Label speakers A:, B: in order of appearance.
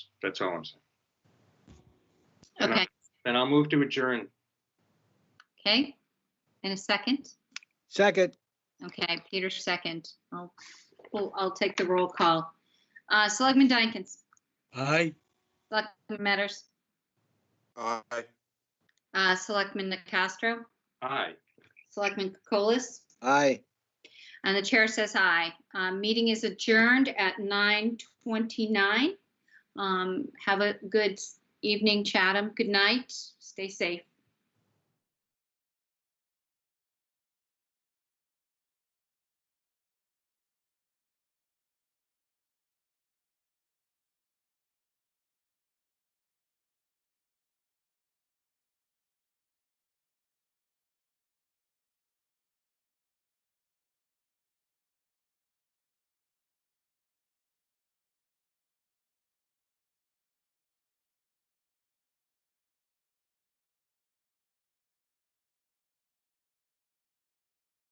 A: That's all I'm saying. And I-
B: Okay,
A: And I'll move to adjourn.
B: okay. In a second.
C: Second,
B: Okay, Peter, second. I'll, well, I'll take the roll call. Uh, Selectman Dykens,
C: aye.
B: Selectman Matters,
D: Aye.
B: uh, Selectman Castro,
A: Aye.
B: Selectman Kokolas,
C: Aye.
B: and the chair says aye. Uh, meeting is adjourned at nine twenty-nine. Um, have a good evening, Chatham. Good night. Stay safe.